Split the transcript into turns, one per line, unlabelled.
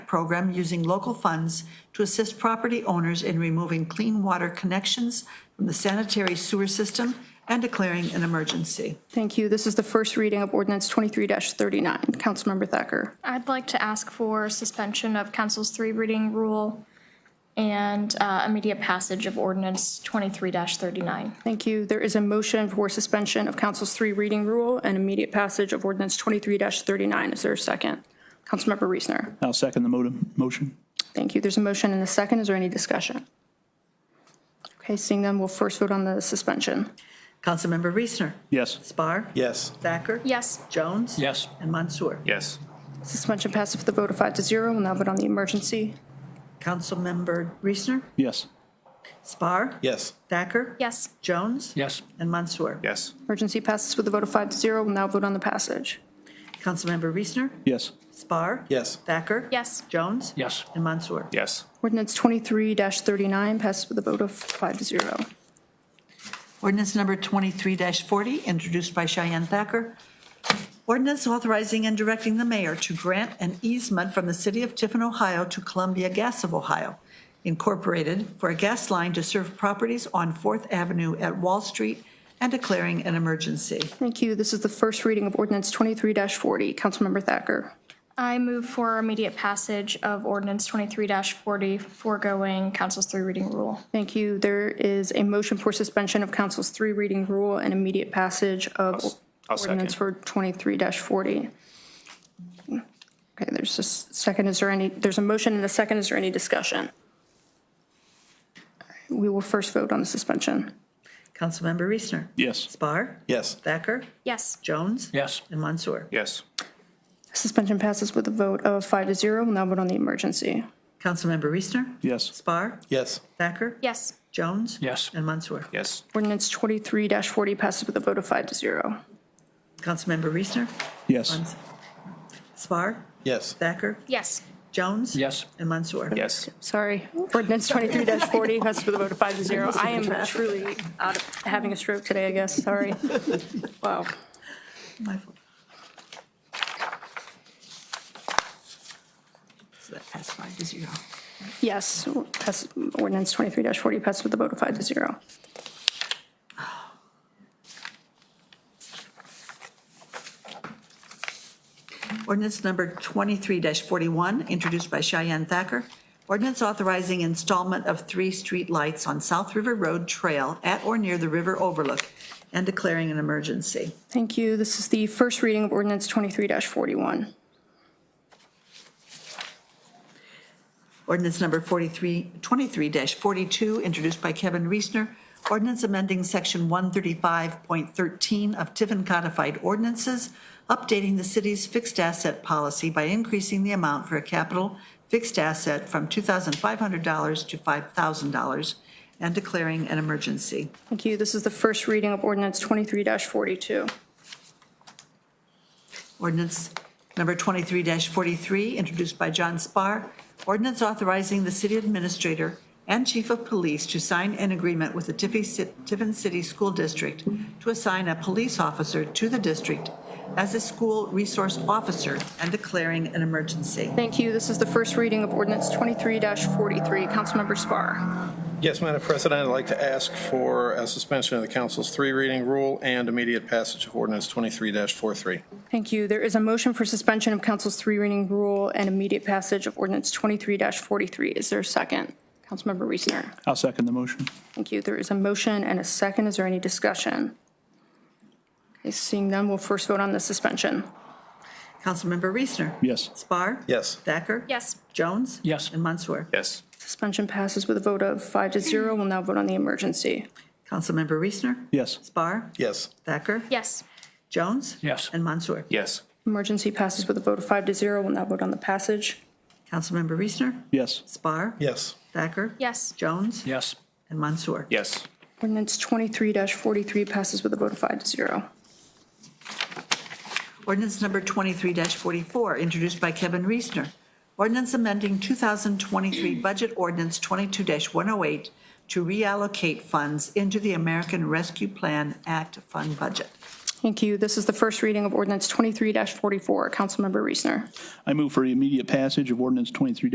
program using local funds to assist property owners in removing clean water connections from the sanitary sewer system and declaring an emergency.
Thank you. This is the first reading of ordinance 23-39. Councilmember Thacker.
I'd like to ask for suspension of council's three reading rule and uh, immediate passage of ordinance 23-39.
Thank you. There is a motion for suspension of council's three reading rule and immediate passage of ordinance 23-39. Is there a second? Councilmember Reesner.
I'll second the mo- motion.
Thank you. There's a motion and a second. Is there any discussion? Okay, seeing none, we'll first vote on the suspension.
Councilmember Reesner?
Yes.
Spar?
Yes.
Thacker?
Yes,
Jones?
Yes.
And Mansour?
Yes.
Suspension passes with a vote of five to zero. We'll now vote on the emergency.
Councilmember Reesner?
Yes.
Spar?
Yes.
Thacker?
yes,
Jones?
Yes.
And Mansour?
Yes.
Emergency passes with a vote of five to zero. We'll now vote on the passage.
Councilmember Reesner?
Yes.
Spar?
Yes.
Thacker?
yes,
Jones?
Yes.
And Mansour?
Yes.
Ordinance 23-39 passes with a vote of five to zero.
Ordinance number 23-40, introduced by Cheyenne Thacker. Ordinance authorizing and directing the mayor to grant an easement from the city of Tiffin, Ohio to Columbia Gas of Ohio Incorporated for a gas line to serve properties on Fourth Avenue at Wall Street and declaring an emergency.
Thank you. This is the first reading of ordinance 23-40. Councilmember Thacker.
I move for immediate passage of ordinance 23-40, foregoing council's three reading rule.
Thank you. There is a motion for suspension of council's three reading rule and immediate passage of
I'll second.
ordinance for 23-40. Okay, there's a s- second. Is there any, there's a motion and a second. Is there any discussion? We will first vote on the suspension.
Councilmember Reesner?
Yes.
Spar?
Yes.
Thacker?
Yes,
Jones?
Yes.
And Mansour?
Yes.
Suspension passes with a vote of five to zero. We'll now vote on the emergency.
Councilmember Reesner?
Yes.
Spar?
Yes.
Thacker?
yes,
Jones?
Yes.
And Mansour?
Yes.
Ordinance 23-40 passes with a vote of five to zero.
Councilmember Reesner?
Yes.
Spar?
Yes.
Thacker?
yes,
Jones?
Yes.
And Mansour?
Yes.
Sorry, ordinance 23-40 passes with a vote of five to zero. I am truly out of, having a stroke today, I guess, sorry. Wow.
My fault. So that passed five to zero.
Yes, pass- ordinance 23-40 passes with a vote of five to zero.
Ordinance number 23-41, introduced by Cheyenne Thacker. Ordinance authorizing installment of three street lights on South River Road Trail at or near the river overlook and declaring an emergency.
Thank you. This is the first reading of ordinance 23-41.
Ordinance number 43, 23-42, introduced by Kevin Reesner. Ordinance amending section 135.13 of Tiffin Codified Ordinances, updating the city's fixed asset policy by increasing the amount for a capital fixed asset from $2,500 to $5,000 and declaring an emergency.
Thank you. This is the first reading of ordinance 23-42.
Ordinance number 23-43, introduced by John Spar. Ordinance authorizing the city administrator and chief of police to sign an agreement with the Tiffy Ci- Tiffin City School District to assign a police officer to the district as a school resource officer and declaring an emergency.
Thank you. This is the first reading of ordinance 23-43. Councilmember Spar.
Yes, Madam President, I'd like to ask for a suspension of the council's three reading rule and immediate passage of ordinance 23-43.
Thank you. There is a motion for suspension of council's three reading rule and immediate passage of ordinance 23-43. Is there a second? Councilmember Reesner.
I'll second the motion.
Thank you. There is a motion and a second. Is there any discussion? Okay, Seeing none, we'll first vote on the suspension.
Councilmember Reesner.
Yes.
Spar.
Yes.
Thacker.
yes,
Jones.
Yes.
And Mansour.
Yes.
Suspension passes with a vote of five to zero. We'll now vote on the emergency.
Councilmember Reesner.
Yes.
Spar.
Yes.
Thacker.
yes,
Jones.
Yes.
And Mansour.
Yes.
Emergency passes with a vote of five to zero. We'll now vote on the passage.
Councilmember Reesner.
Yes.
Spar.
Yes.
Thacker.
yes,
Jones.
Yes.
And Mansour.
Yes.
Ordinance 23-43 passes with a vote of five to zero.
Ordinance number 23-44, introduced by Kevin Reesner. Ordinance amending 2023 Budget Ordinance 22-108 to reallocate funds into the American Rescue Plan Act Fund budget.
Thank you. This is the first reading of ordinance 23-44. Councilmember Reesner.
I move for immediate passage of ordinance 23